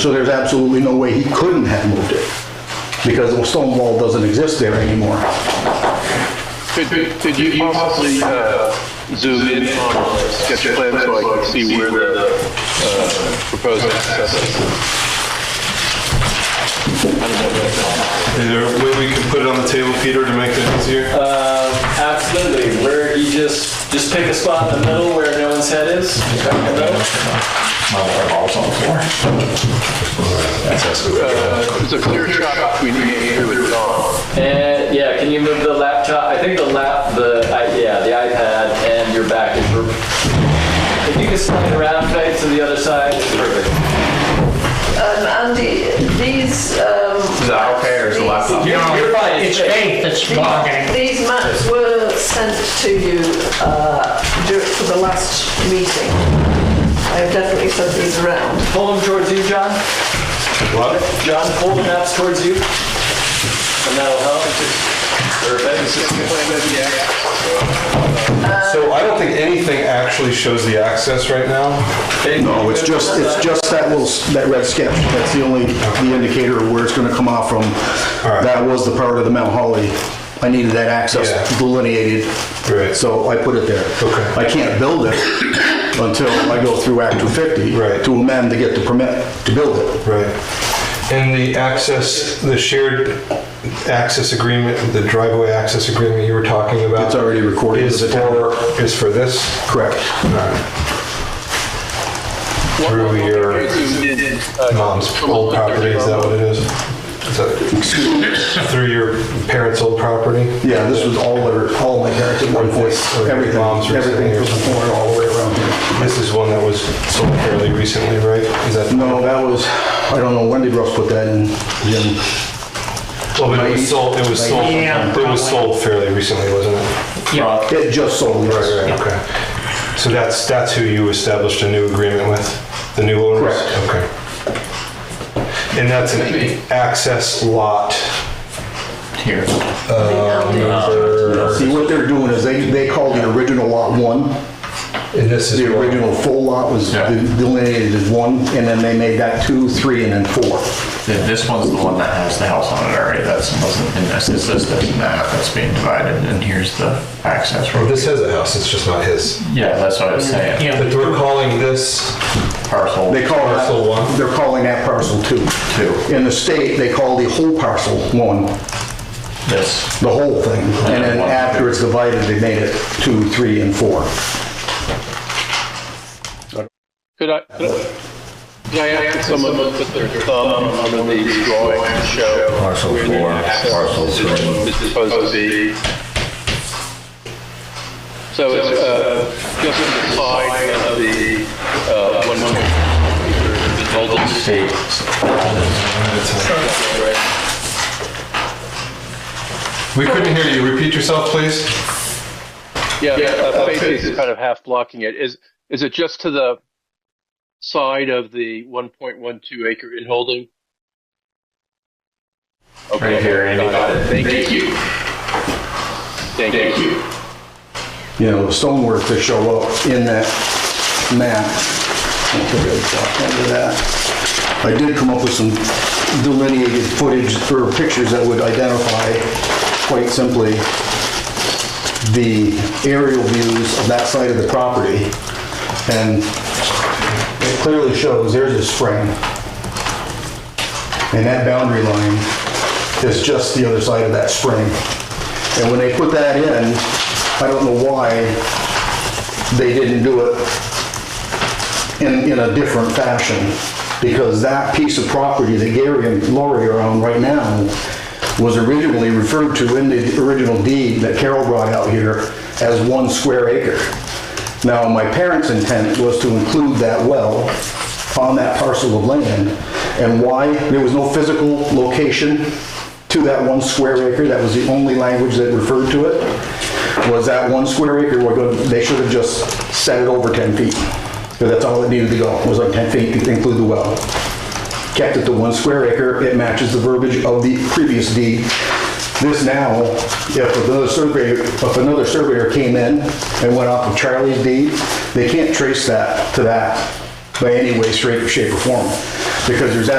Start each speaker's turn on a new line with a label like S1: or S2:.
S1: So there's absolutely no way he couldn't have moved it, because the stone wall doesn't exist there anymore.
S2: Could, could you possibly uh, zoom in on the sketch plan so I can see where the uh, proposed access is?
S3: Is there a way we can put it on the table, Peter, to make it easier?
S4: Um, absolutely. Where you just just pick a spot in the middle where no one's head is.
S2: Uh, It's a clear shot between Andrew and Tom.
S4: And yeah, can you move the laptop? I think the lap the I, yeah the iPad and your back is. perfect. If you can slide around tight to the other side, it's perfect.
S5: Um, Andy, these, um.
S6: The iPad or is the
S5: these-
S6: laptop?
S4: You're, you're fine.
S7: It's faith that's talking.
S5: These maps were sent to you, uh, dur- for the last meeting. I have definitely sent these around.
S4: Pull them towards you, John.
S3: What?
S4: John, pull the maps towards you, and that'll help. Perfect.
S3: So I don't think anything actually shows the access right now.
S1: No, it's just, it's just that little, s- that red sketch, that's the only, the indicator of where it's gonna come off from.
S3: right.
S1: That was the part of the Mount Holly, I needed that access
S3: Yeah.
S1: delineated.
S3: Right.
S1: So I put it there.
S3: Okay.
S1: I can't build it until I go through Act 250.
S3: Right.
S1: To amend to get the permit to build it.
S3: Right. And the access, the shared access agreement, the driveway access agreement you were talking about?
S1: It's already recorded
S3: Is
S1: with the
S3: for, is for this?
S1: Correct.
S3: Through your
S2: uh,
S3: mom's Um, old property, is that what it is? Is that- Through your parents' old property?
S1: Yeah, this was all, their- all my parents at one point,
S3: Or their
S1: everything,
S3: moms or
S1: everything from the
S3: something.
S1: corner all the way around here.
S3: This is one that was sold fairly recently, right? Is that?
S1: No, that was, I don't know, when did Russ put that in? Jim?
S3: Well, but it was sold, it was sold,
S7: Yeah,
S3: it was
S7: probably.
S3: sold fairly recently, wasn't it?
S7: Yeah,
S1: It just sold, yes.
S3: Right, right, okay. So that's, that's who you established a new agreement with, the new owners?
S1: Correct.
S3: Okay. And that's an access lot
S6: Here.
S3: number,
S1: See, what they're doing is they, they called the original lot one.
S3: and this is.
S1: The
S3: what-
S1: original full lot was
S6: Yeah.
S1: delineated as one, and then they made that two, three, and then four.
S6: Th- This one's the one that has the house on it already. That's wasn't in this. It's this, this, and that. That's being divided. And here's the access
S3: Well,
S6: road.
S3: This has a house, it's just not his.
S6: Yeah, that's what I was saying.
S7: yeah.
S3: But we're calling this,
S6: Parcel.
S1: They call that,
S3: Parcel one.
S1: they're calling that parcel two.
S6: Two.
S1: In the state, they call the whole parcel one,
S6: This.
S1: the whole thing. And then
S6: One.
S1: after it's divided, they made it two, three, and four.
S2: Could I, could I- could I ask someone to put their thumb on the drawing to show?
S8: Parcel
S2: where the
S8: four,
S2: access
S8: parcel
S2: is
S8: three.
S2: Supposed to be. So it's, uh, just the side of the, uh, one one. The total
S6: State.
S3: we couldn't hear you, repeat yourself, please?
S2: Yeah, uh, Faith is kind of half blocking it. Is, is it just to the side of the 1.12 acre inholding? Okay,
S6: Right here, Andy.
S2: got it. Thank you. Thank you.
S1: you know, the stonework to show up in that map. I'll put it up under that. I did come up with some delineated footage or pictures that would identify quite simply the aerial views of that side of the property. And it clearly shows there's a spring. And that boundary line is just the other side of that spring. And when they put that in, I don't know why they didn't do it in, in a different fashion. Because that piece of property that Gary and Lori are on right now was originally referred to in the original deed that Carol brought out here as one square acre. Now, my parents' intent was to include that well on that parcel of land. And why? There was no physical location to that one square acre, that was the only language that referred to it, was that one square acre, we're gonna, they should have just set it over 10 feet. Because that's all it needed to go, was like 10 feet to include the well. Kept it to one square acre, it matches the verbiage of the previous deed. This now, if another surveyor, if another surveyor came in and went off of Charlie's deed, they can't trace that to that by any way, shape, shape or form. because there's